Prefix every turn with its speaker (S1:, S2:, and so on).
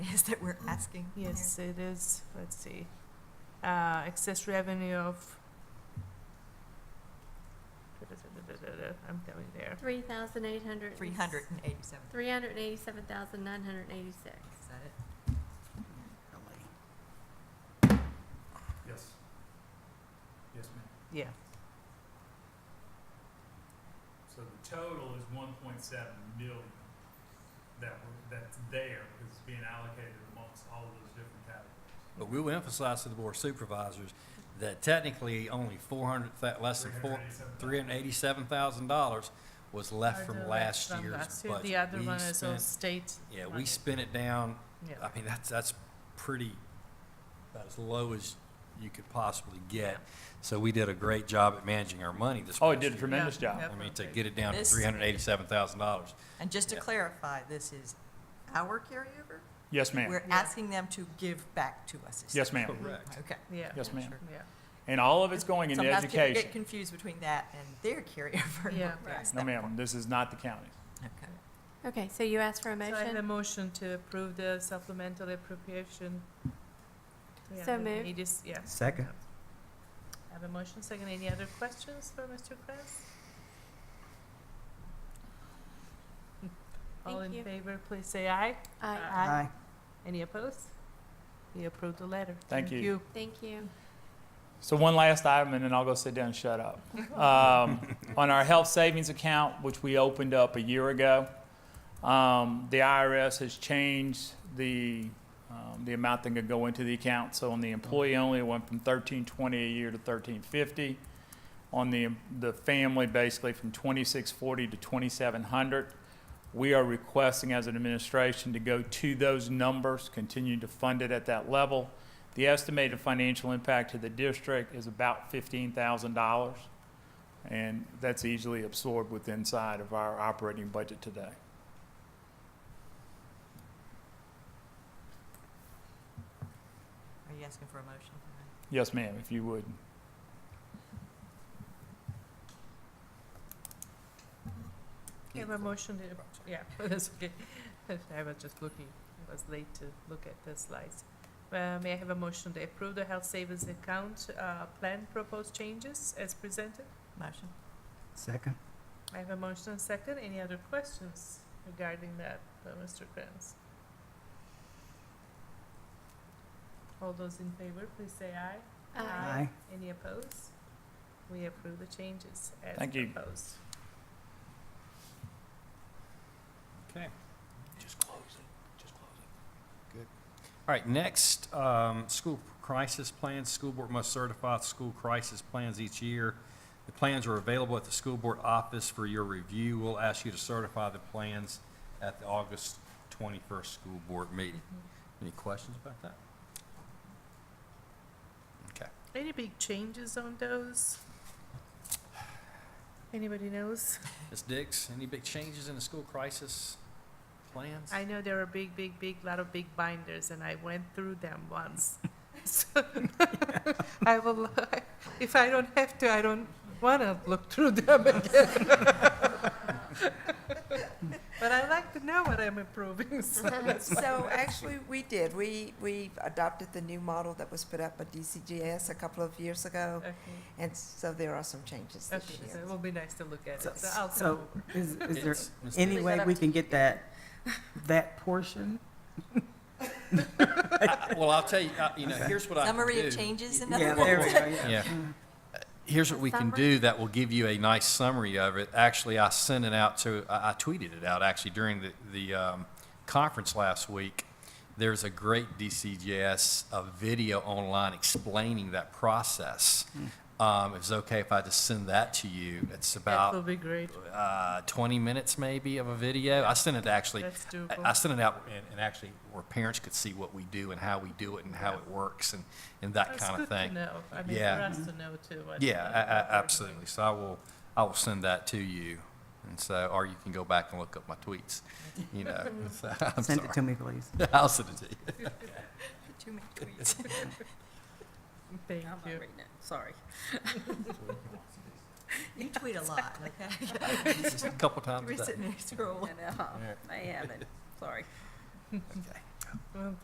S1: is that we're asking here.
S2: Yes, it is, let's see, uh, excess revenue of. I'm going there.
S3: Three thousand eight hundred.
S1: Three hundred and eighty-seven,
S3: Three hundred and eighty-seven thousand nine hundred and eighty-six.
S1: is that it?
S4: Yes. Yes, ma'am.
S2: Yeah,
S4: So the total is one point seven million that we're, that's there, because it's being allocated amongst all of those different categories.
S5: But we will emphasize to the board of supervisors that technically only four hundred, less than four, three hundred eighty-seven thousand dollars was left from
S2: Other
S5: last
S2: from
S5: year's
S2: last year.
S5: budget.
S2: The other
S5: We
S2: one is all
S5: spent-
S2: state.
S5: Yeah, we
S2: money.
S5: spent it down,
S2: Yeah.
S5: I mean, that's, that's pretty, about as low as you could possibly get. So we did a great job at managing our money this past
S6: Oh, it did a
S5: year.
S6: tremendous
S2: Yeah,
S6: job.
S2: yeah,
S5: I mean, to
S2: perfect.
S5: get it down to
S1: This-
S5: three hundred eighty-seven thousand dollars.
S1: And just to
S5: Yeah.
S1: clarify, this is our carryover?
S6: Yes, ma'am.
S1: We're asking them to give back to us. is
S6: Yes,
S1: that-
S6: ma'am.
S5: Correct.
S1: Okay.
S2: Yeah.
S6: Yes, ma'am.
S1: Sure.
S2: Yeah,
S6: And all of it's going into
S1: Sometimes people
S6: education.
S1: Get confused between that and their carryover.
S2: Yeah.
S1: Yes,
S6: No,
S1: that
S6: ma'am, this is not the county.
S1: part. Okay.
S3: Okay, so you asked for a
S2: so I have a
S3: motion?
S2: motion to approve the supplemental appropriation.
S3: So moved.
S2: Yes, yeah.
S7: Second.
S2: I have a motion, second, any other questions for Mr. Kress? All
S3: Thank
S2: in
S3: you.
S2: favor, please say aye.
S3: Aye.
S2: uh,
S7: Aye.
S2: Any opposed? We approve the letter.
S6: Thank you.
S3: Thank you.
S6: So one last item, and then I'll go sit down and shut up. Um, on our health savings account, which we opened up a year ago, um, the IRS has changed the um, the amount that can go into the account. So on the employee only, it went from thirteen twenty a year to thirteen fifty. On the the family, basically from twenty six forty to twenty seven hundred. We are requesting as an administration to go to those numbers, continue to fund it at that level. The estimated financial impact to the district is about fifteen thousand dollars, and that's easily absorbed with inside of our operating budget today.
S1: Are you asking for a motion?
S6: Yes, ma'am, if you would.
S2: I have a motion to, appro- yeah, that's okay. I was just looking, I was late to look at the slides. Uh, may I have a motion to approve the health savings account, uh, plan proposed changes as presented?
S1: Motion.
S7: Second.
S2: I have a motion and second. Any other questions regarding that, uh, Mr. Kranz? All those in favor, please say aye.
S3: Aye.
S7: Aye.
S2: Any opposed? We approve the changes as
S6: Thank you.
S2: proposed.
S5: Okay.
S6: Just close it, just close it.
S5: All right, next, um, school crisis plans. School board must certify school crisis plans each year. The plans are available at the school board office for your review. We'll ask you to certify the plans at the August 21st school board meeting.
S6: Mm-hmm.
S5: Any questions about that? Okay.
S2: Any big changes on those? Anybody knows?
S5: Ms. Dix, any big changes in the school crisis plans?
S2: I know there are big, big, big, lot of big binders, and I went through them once. So I will, if I don't have to, I don't want to look through them again. But I like to know what I'm approving, so that's why.
S8: So actually, we did. We, we adopted the new model that was put up by DCGS a couple of years ago,
S2: Okay,
S8: and so there are some changes
S2: okay,
S8: this
S2: so
S8: year.
S2: it will be nice to look at
S7: So-
S2: it, so I'll
S7: so-
S2: come over.
S7: Is, is there
S5: It's- Ms. Dix.
S7: any way we can get that, that portion?
S5: Well, I'll tell you, uh, you know, here's what I can do.
S1: Summary of changes and
S7: Yeah,
S1: other.
S7: there we go, yeah.
S5: Yeah. Here's what we can
S3: Summary?
S5: do that will give you a nice summary of it. Actually, I sent it out to, I I tweeted it out actually during the, the um, conference last week. There's a great DCGS uh, video online explaining that process.
S2: Hmm.
S5: Um, if it's okay if I just send that to you, it's
S2: That will
S5: about
S2: be great.
S5: uh, 20 minutes maybe of a video. I sent it actually,
S2: That's doable.
S5: I I sent it out and, and actually where parents could see what we do and how we do it and how it works and, and that
S2: It's
S5: kind of
S2: good
S5: thing.
S2: to know, I mean, for
S5: Yeah.
S2: us to know too. what-
S5: Yeah,
S2: what
S5: a-
S2: we're
S5: a-
S2: doing.
S5: absolutely. So I will, I will send that to you. And so, or you can go back and look up my tweets, you know. So, I'm
S7: Send it to
S5: sorry.
S7: me, please.
S5: I'll send it to you.
S1: Too many tweets.
S2: Thank you.
S1: Sorry. You tweet a lot, okay?
S5: Just a couple times
S1: You're
S5: a day.
S1: sitting there scrolling.
S5: All right.
S2: Well,